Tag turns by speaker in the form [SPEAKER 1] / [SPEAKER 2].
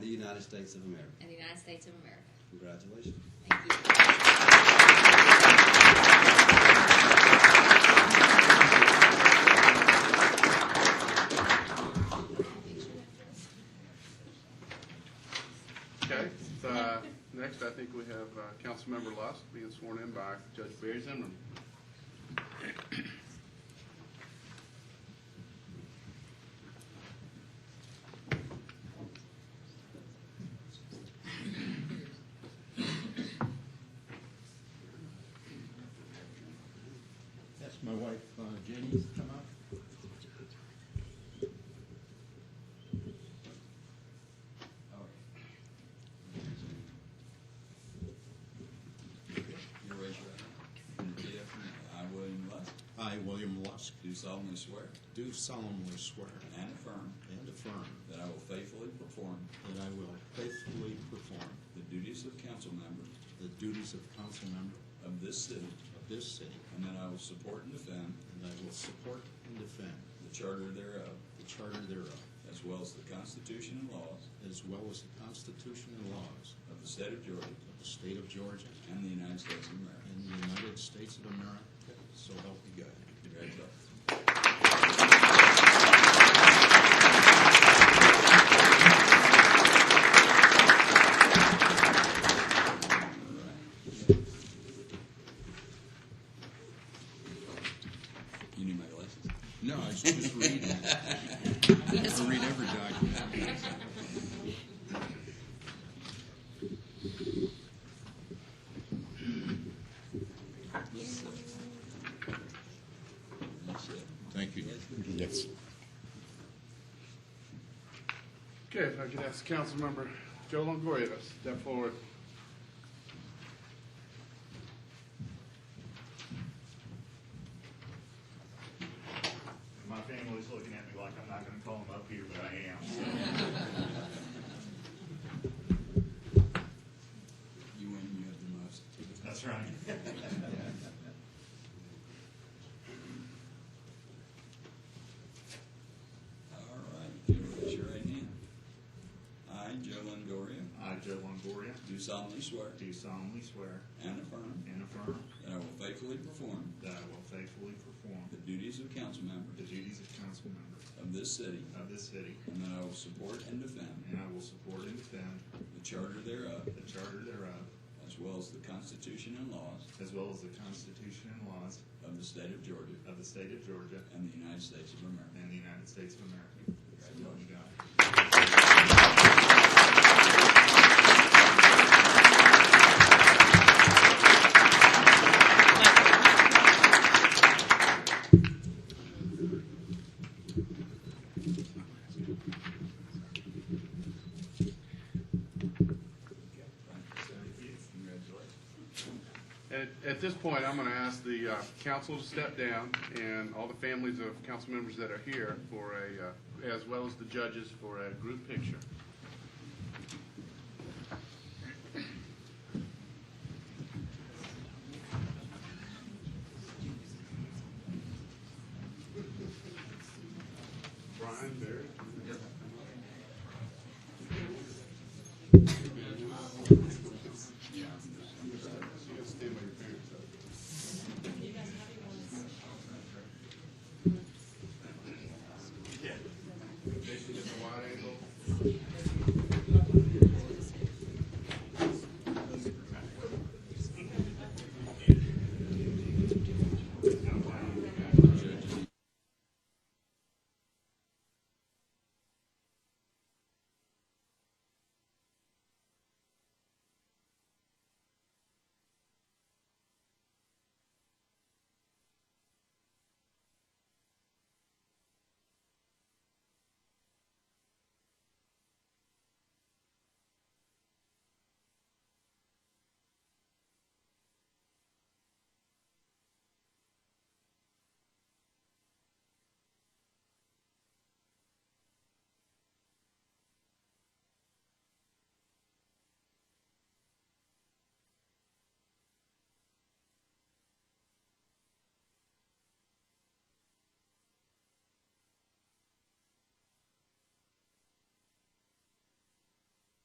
[SPEAKER 1] United States of America.
[SPEAKER 2] and the United States of America.
[SPEAKER 1] Congratulations.
[SPEAKER 2] Thank you.
[SPEAKER 3] Okay, so, uh, next I think we have uh, Councilmember Lusk being sworn in by Judge Barry Zimmerman.
[SPEAKER 4] That's my wife, uh, Jenny, come up.
[SPEAKER 5] You raise your right hand and repeat after me. I, William Lusk,
[SPEAKER 4] I, William Lusk,
[SPEAKER 5] do solemnly swear
[SPEAKER 4] do solemnly swear
[SPEAKER 5] and affirm
[SPEAKER 4] and affirm
[SPEAKER 5] that I will faithfully perform
[SPEAKER 4] that I will faithfully perform
[SPEAKER 5] the duties of council member
[SPEAKER 4] the duties of council member
[SPEAKER 5] of this city,
[SPEAKER 4] of this city,
[SPEAKER 5] and that I will support and defend
[SPEAKER 4] and I will support and defend
[SPEAKER 5] the charter thereof,
[SPEAKER 4] the charter thereof,
[SPEAKER 5] as well as the Constitution and laws
[SPEAKER 4] as well as the Constitution and laws
[SPEAKER 5] of the state of Georgia
[SPEAKER 4] of the state of Georgia
[SPEAKER 5] and the United States of America.
[SPEAKER 4] and the United States of America, so help me God.
[SPEAKER 5] Congratulations. You need my glasses?
[SPEAKER 4] No, I was just reading. I read every document.
[SPEAKER 5] Yes, sir. That's it.
[SPEAKER 4] Thank you. Yes.
[SPEAKER 3] Okay, if I could ask Councilmember Joe Longoria to step forward.
[SPEAKER 6] My family's looking at me like I'm not gonna call them up here, but I am. so.
[SPEAKER 5] You win, you have the most.
[SPEAKER 6] That's right.
[SPEAKER 5] All right, you raise your right hand. I, Joe Longoria,
[SPEAKER 6] I, Joe Longoria,
[SPEAKER 5] do solemnly swear
[SPEAKER 6] do solemnly swear
[SPEAKER 5] and affirm
[SPEAKER 6] and affirm
[SPEAKER 5] that I will faithfully perform
[SPEAKER 6] that I will faithfully perform
[SPEAKER 5] the duties of council member
[SPEAKER 6] the duties of council member
[SPEAKER 5] of this city
[SPEAKER 6] of this city,
[SPEAKER 5] And that I will support and defend
[SPEAKER 6] and I will support and defend
[SPEAKER 5] the charter thereof,
[SPEAKER 6] the charter thereof,
[SPEAKER 5] as well as the Constitution and laws
[SPEAKER 6] as well as the Constitution and laws
[SPEAKER 5] of the state of Georgia
[SPEAKER 6] of the state of Georgia
[SPEAKER 5] and the United States of America.
[SPEAKER 6] and the United States of America. So help me God.
[SPEAKER 5] Congratulations.
[SPEAKER 3] At, at this point, I'm going to ask the uh, council to step down and all the families of council members that are here for a, uh, as well as the judges for a group picture. Brian Barry.